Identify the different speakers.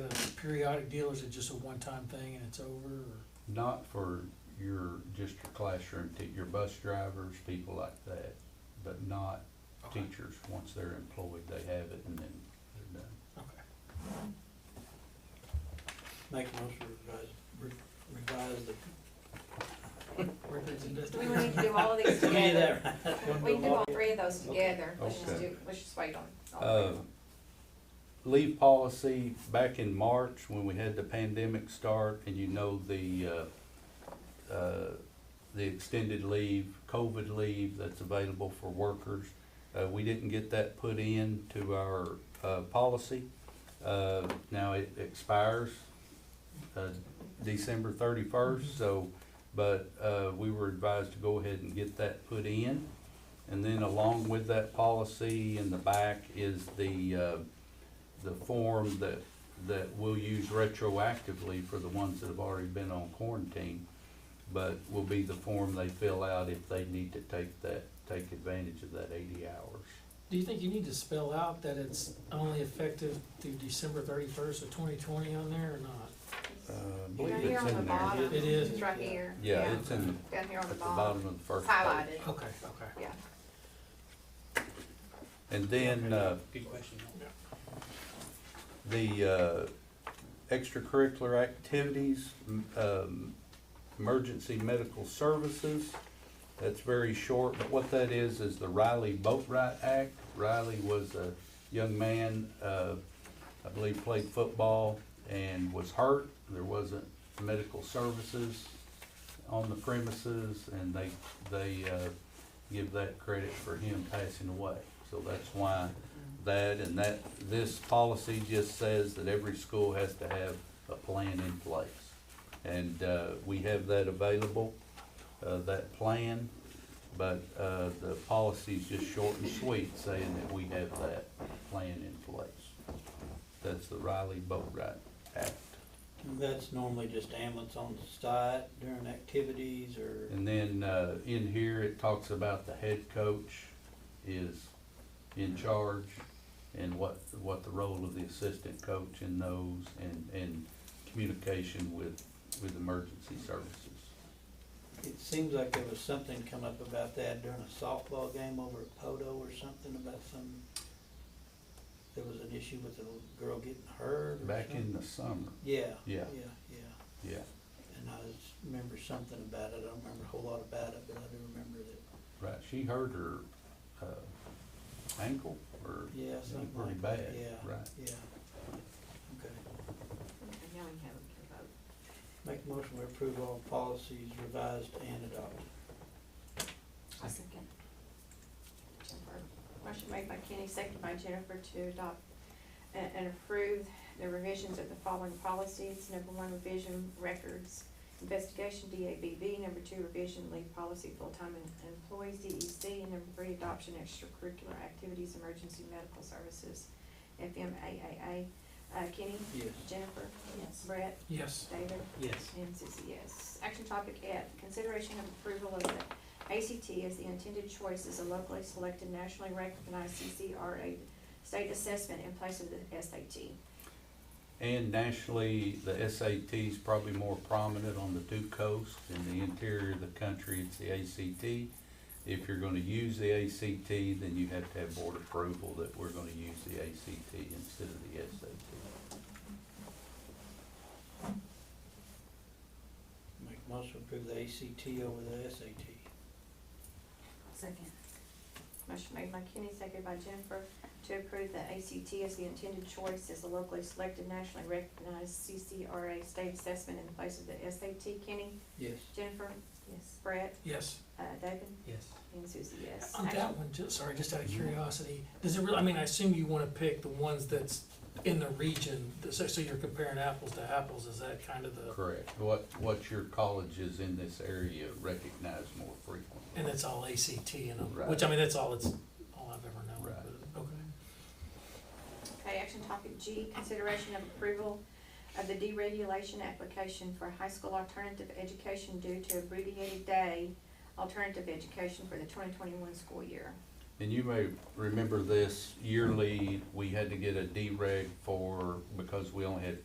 Speaker 1: uh, periodic deal, or is it just a one-time thing and it's over, or?
Speaker 2: Not for your, just your classroom, te- your bus drivers, people like that, but not
Speaker 1: Okay.
Speaker 2: teachers. Once they're employed, they have it and then they're done.
Speaker 1: Okay.
Speaker 3: Make a motion to revise, re- revise the.
Speaker 4: Do we need to do all of these
Speaker 3: We need
Speaker 4: together?
Speaker 3: that, right? Don't
Speaker 4: We can do
Speaker 3: all-
Speaker 4: all three of those together, let's just
Speaker 2: Okay.
Speaker 4: do, let's just wait on all three
Speaker 2: Uh,
Speaker 4: of them.
Speaker 2: Leave policy back in March when we had the pandemic start and you know the, uh, uh, the extended leave, COVID leave that's available for workers. Uh, we didn't get that put in to our, uh, policy. Uh, now it expires, uh, December thirty-first, so, but, uh, we were advised to go ahead and get that put in. And then along with that policy in the back is the, uh, the form that, that we'll use retroactively for the ones that have already been on quarantine, but will be the form they fill out if they need to take that, take advantage of that eighty hours.
Speaker 1: Do you think you need to spell out that it's only effective through December thirty-first of twenty twenty on there or not?
Speaker 2: Uh, I
Speaker 4: Down
Speaker 2: believe
Speaker 4: here
Speaker 2: it's
Speaker 4: on the
Speaker 2: in there.
Speaker 4: bottom.
Speaker 1: It is.
Speaker 4: It's right here.
Speaker 2: uh, Yeah, it's in,
Speaker 4: Down here
Speaker 2: at
Speaker 4: on
Speaker 2: the
Speaker 4: the bottom,
Speaker 2: bottom of the first page.
Speaker 4: highlighted,
Speaker 1: Okay, okay.
Speaker 4: yeah.
Speaker 2: And then, uh,
Speaker 3: Good question.
Speaker 2: the uh, extracurricular activities, m- um, emergency medical services. That's very short, but what that is, is the Riley Boatwright Act. Riley was a young man, uh, I believe played football and was hurt. There wasn't medical services on the premises and they, they uh, give that credit for him passing away. So that's why that and that, this policy just says that every school has to have a plan in place. And, uh, we have that available, uh, that plan, but, uh, the policy's just short and sweet saying that we have that plan in place. That's the Riley Boatright Act.
Speaker 3: That's normally just ambulance on the site during activities or.
Speaker 2: And then, uh, in here, it talks about the head coach is in charge and what, what the role of the assistant coach in those and, and communication with, with emergency services.
Speaker 3: It seems like there was something come up about that during a softball game over at Poto or something about some, there was an issue with a girl getting hurt or
Speaker 2: Back in
Speaker 3: something.
Speaker 2: the summer,
Speaker 3: Yeah.
Speaker 2: Yeah.
Speaker 3: Yeah, yeah.
Speaker 2: yeah.
Speaker 3: And I just remember something about it. I don't remember a whole lot about it, but I do remember that,
Speaker 2: Right, she hurt her, uh, ankle or
Speaker 3: yeah, something
Speaker 2: pretty
Speaker 3: like that.
Speaker 2: bad,
Speaker 3: Yeah,
Speaker 2: right?
Speaker 3: yeah. Okay.
Speaker 4: And now we have them to vote.
Speaker 3: Make a motion we approve all policies revised and adopted.
Speaker 4: I second. Jennifer. Motion made by Kenny, seconded by Jennifer to adopt a- and approve the revisions of the following policies. Number one, revision records investigation, DABB. Number two, revision leave policy, full-time em- employees, DEC. And number three, adoption extracurricular activities, emergency medical services, FMAAA. Uh, Kenny?
Speaker 3: Yes.
Speaker 4: Jennifer?
Speaker 5: Yes.
Speaker 4: Brett?
Speaker 1: Yes.
Speaker 4: David?
Speaker 3: Yes.
Speaker 4: And Susie, yes. Action topic F, consideration of approval of the ACT as the intended choice as a locally selected nationally recognized CCRA state assessment in place of the SAT.
Speaker 2: And nationally, the SAT's probably more prominent on the two coasts. In the interior of the country, it's the ACT. If you're gonna use the ACT, then you have to have board approval that we're gonna use the ACT instead of the SAT.
Speaker 3: Make a motion to approve the ACT over the SAT.
Speaker 5: Second.
Speaker 4: Motion made by Kenny, seconded by Jennifer, to approve the ACT as the intended choice as a locally selected nationally recognized CCRA state assessment in place of the SAT. Kenny,
Speaker 3: Yes.
Speaker 4: Jennifer,
Speaker 5: Yes.
Speaker 4: Brett,
Speaker 1: Yes.
Speaker 4: uh, David,
Speaker 3: Yes.
Speaker 4: and Susie, yes.
Speaker 1: On
Speaker 4: Action-
Speaker 1: that one, just, sorry, just out of curiosity, does it really, I mean, I assume you wanna pick the ones that's in the region, so, so you're comparing apples to apples, is that kind of the,
Speaker 2: Correct. What, what your colleges in this area recognize more frequently.
Speaker 1: and it's all ACT and,
Speaker 2: Right.
Speaker 1: which, I mean, that's all it's, all I've ever known,
Speaker 2: Right.
Speaker 1: but, okay.
Speaker 4: Okay, action topic G, consideration of approval of the deregulation application for high school alternative education due to abbreviated day alternative education for the twenty twenty-one school year.
Speaker 2: And you may remember this yearly, we had to get a dereg for, because we only had